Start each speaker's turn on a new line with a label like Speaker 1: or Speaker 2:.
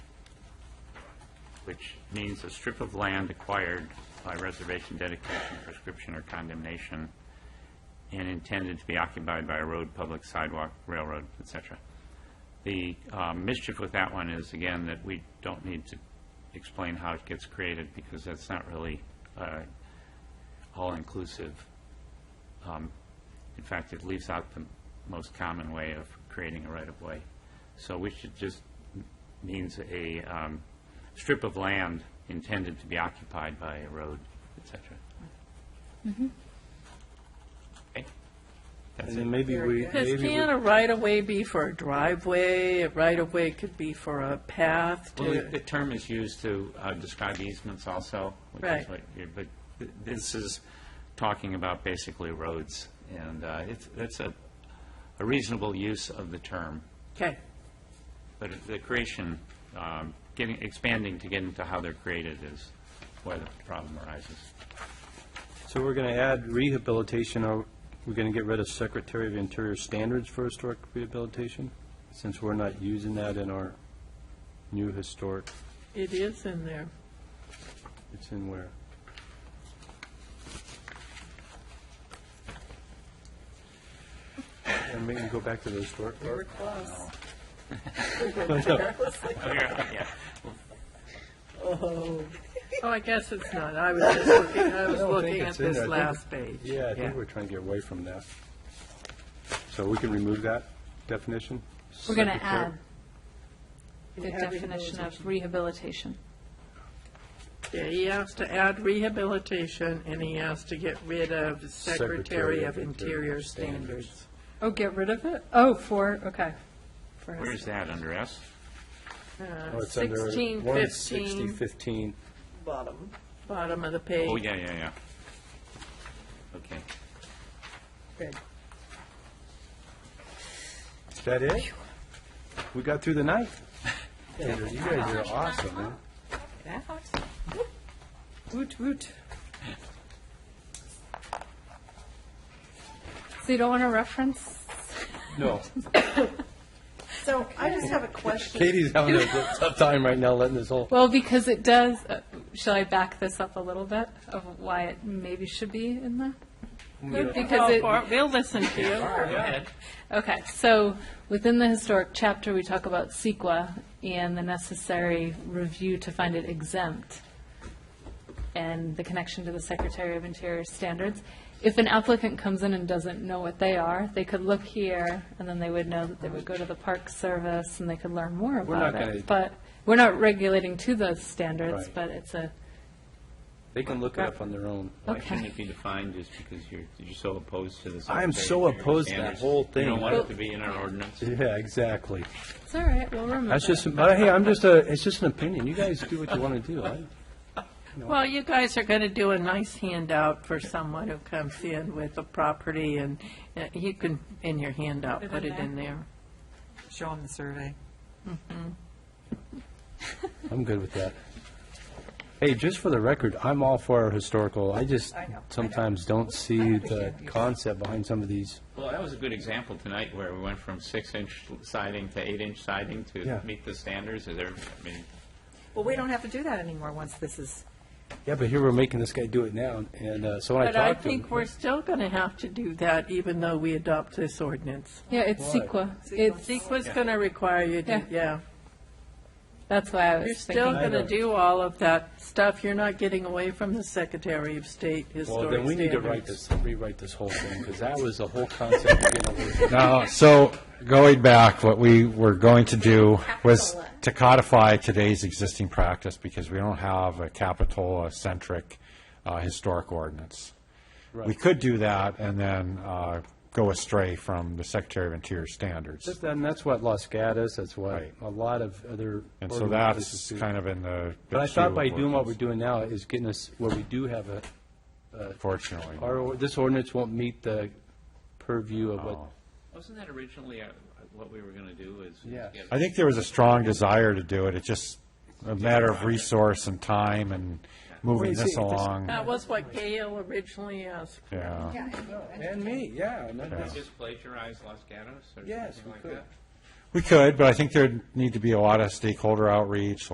Speaker 1: which means a strip of land acquired by reservation, dedication, prescription, or condemnation, and intended to be occupied by a road, public sidewalk, railroad, et cetera. The uh, mischief with that one is, again, that we don't need to explain how it gets created, because that's not really uh, all-inclusive. Um, In fact, it leaves out the most common way of creating a right-of-way. So we should just means a um, strip of land intended to be occupied by a road, et cetera. Okay? That's
Speaker 2: And
Speaker 1: it.
Speaker 2: then maybe we,
Speaker 3: Because
Speaker 2: maybe
Speaker 3: can
Speaker 2: we,
Speaker 3: a right-of-way be for a driveway? A right-of-way could be for a path
Speaker 1: Well, the-
Speaker 3: to,
Speaker 1: the term is used to uh, describe easements also, which is
Speaker 3: Right.
Speaker 1: what, you- but th- this is talking about basically roads, and uh, it's, that's a a reasonable use of the term.
Speaker 3: okay,
Speaker 1: But the creation, um, getting, expanding to get into how they're created is where the problem arises.
Speaker 2: so we're going to add rehabilitation, or we're going to get rid of Secretary of Interior standards for historic rehabilitation, since we're not using that in our new historic,
Speaker 3: it is in there.
Speaker 2: it's in where? And we can go back to the historic part.
Speaker 3: close.
Speaker 1: Yeah.
Speaker 3: Oh, I guess it's not. I was just looking, I was
Speaker 2: don't think
Speaker 3: looking at
Speaker 2: it's in there.
Speaker 3: this
Speaker 2: I think
Speaker 3: last page.
Speaker 2: Yeah, I think we're trying to get away from that. So we can remove that definition?
Speaker 4: We're going to
Speaker 2: Secretary-
Speaker 4: add the definition of rehabilitation.
Speaker 3: Yeah, he has to add rehabilitation, and he has to get rid of Secretary of Interior Standards.
Speaker 4: Oh, get rid of it? Oh, for, okay. For us.
Speaker 1: Where's that, under S?
Speaker 2: Oh, it's under
Speaker 4: 16,
Speaker 2: 160, 15.
Speaker 3: Bottom. Bottom of the
Speaker 1: Oh,
Speaker 3: page.
Speaker 1: yeah, yeah, yeah. Okay.
Speaker 3: Good.
Speaker 2: Is that it? We got through the night. Andrew, You guys are awesome, man.
Speaker 3: Woot, woot.
Speaker 4: So you don't want to reference?
Speaker 2: No,
Speaker 5: So I just have a question.
Speaker 2: Katie's having a tough time right now letting this whole,
Speaker 4: Well, because it does, uh, shall I back this up a little bit of why it maybe should be in there? Because
Speaker 3: Go
Speaker 4: it,
Speaker 3: for it. We'll listen to you.
Speaker 4: Okay, so within the historic chapter, we talk about CEQA and the necessary review to find it exempt and the connection to the Secretary of Interior standards. If an applicant comes in and doesn't know what they are, they could look here and then they would know that they would go to the Park Service and they could learn more
Speaker 2: not
Speaker 4: about
Speaker 2: gonna-
Speaker 4: it. But we're not regulating to those standards,
Speaker 2: Right.
Speaker 4: but it's a,
Speaker 2: they can look it up on their own.
Speaker 1: Why shouldn't
Speaker 4: Okay.
Speaker 1: it be defined just because you're, you're so opposed to the
Speaker 2: I
Speaker 1: Secretary
Speaker 2: am so
Speaker 1: of Interior
Speaker 2: opposed to that
Speaker 1: standards?
Speaker 2: whole
Speaker 1: You don't
Speaker 2: thing.
Speaker 1: want it to be in our ordinance?
Speaker 2: Yeah, exactly.
Speaker 4: it's all right, we'll remember.
Speaker 2: That's just, but hey, I'm just a, it's just an opinion. You guys do what you want to do. I-
Speaker 3: Well, you guys are going to do a nice handout for someone who comes in with a property, and uh, you can, in your handout, put it in there.
Speaker 5: Show them the survey.
Speaker 2: I'm good with that. Hey, just for the record, I'm all for our historical. I just sometimes don't see the concept behind some of these.
Speaker 1: Well, that was a good example tonight where we went from six-inch siding to eight-inch siding
Speaker 2: Yeah.
Speaker 1: to meet the standards. Is there, I mean,
Speaker 5: Well, we don't have to do that anymore once this is,
Speaker 2: Yeah, but here we're making this guy do it now, and uh, so when I
Speaker 3: But I
Speaker 2: talked to him.
Speaker 3: think we're still going to have to do that, even though we adopt this ordinance.
Speaker 4: Yeah, it's
Speaker 2: Why?
Speaker 4: CEQA. It's,
Speaker 3: CEQA's going to require you to,
Speaker 4: Yeah.
Speaker 3: yeah.
Speaker 4: that's why I
Speaker 3: You're
Speaker 4: was
Speaker 3: still
Speaker 4: thinking.
Speaker 3: going to do all of that stuff. You're not getting away from the Secretary of State
Speaker 2: Well,
Speaker 3: Historic
Speaker 2: then we need to write
Speaker 3: Standards.
Speaker 2: this, rewrite this whole thing, because that was the whole concept. of getting away from-
Speaker 6: No, Uh, so going back, what we were going to do was to codify today's existing practice because we don't have a Capitola-centric uh, historic ordinance. We
Speaker 2: Right.
Speaker 6: could do that and then uh, go astray from the Secretary of Interior standards.
Speaker 2: Just- And that's what Los Gatos, that's what
Speaker 6: Right.
Speaker 2: a lot of other.
Speaker 6: And so
Speaker 2: organizations
Speaker 6: that's
Speaker 2: do.
Speaker 6: kind of in the. the
Speaker 2: But I thought
Speaker 6: queue
Speaker 2: by
Speaker 6: of
Speaker 2: doing what we're
Speaker 6: ordinance,
Speaker 2: doing now is getting us, where we do have a,
Speaker 6: Fortunately.
Speaker 2: our, or- this ordinance won't meet the purview of
Speaker 6: Oh.
Speaker 2: what.
Speaker 1: wasn't that originally uh, what we were going to do is? is
Speaker 2: Yes.
Speaker 1: get-
Speaker 6: I think there was a strong desire to do it. It's just a matter of resource and time and moving
Speaker 2: Wait, see,
Speaker 6: this
Speaker 2: this-
Speaker 6: along.
Speaker 3: That was what Gail originally asked.
Speaker 6: Yeah.
Speaker 2: And me, yeah. and that-
Speaker 1: Did we Just plagiarize Los Gatos or
Speaker 2: Yes,
Speaker 1: something
Speaker 2: we
Speaker 1: like
Speaker 2: could.
Speaker 1: that?
Speaker 6: We could, but I think there'd need to be a lot of stakeholder outreach,